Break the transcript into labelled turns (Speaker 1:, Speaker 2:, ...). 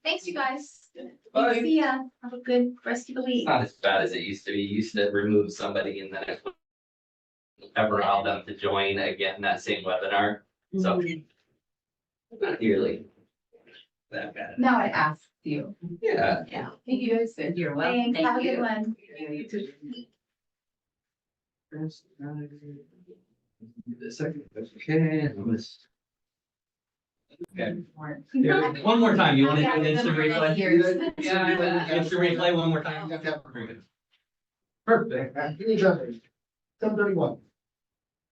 Speaker 1: thanks, you guys.
Speaker 2: Bye.
Speaker 1: See ya. Have a good rest of the
Speaker 2: It's
Speaker 1: week.
Speaker 2: not as bad as it used to be. You used to remove somebody and then it would never allow them to join again that same webinar. So not nearly that bad.
Speaker 1: Now I asked you.
Speaker 2: Yeah.
Speaker 1: Yeah. Thank you guys. Thanks.
Speaker 3: You're
Speaker 1: Have a
Speaker 3: welcome. Thank
Speaker 1: good
Speaker 3: you.
Speaker 1: one.
Speaker 2: The second, okay, I'm just. Okay.
Speaker 1: Yeah.
Speaker 2: One more time, you wanna
Speaker 1: Yeah,
Speaker 2: do an
Speaker 1: I've
Speaker 2: instant
Speaker 1: been around
Speaker 2: replay?
Speaker 1: years.
Speaker 3: Yeah, I will.
Speaker 2: Instant replay one more time?
Speaker 4: You have to have-
Speaker 2: Perfect.
Speaker 4: Perfect. Somebody one.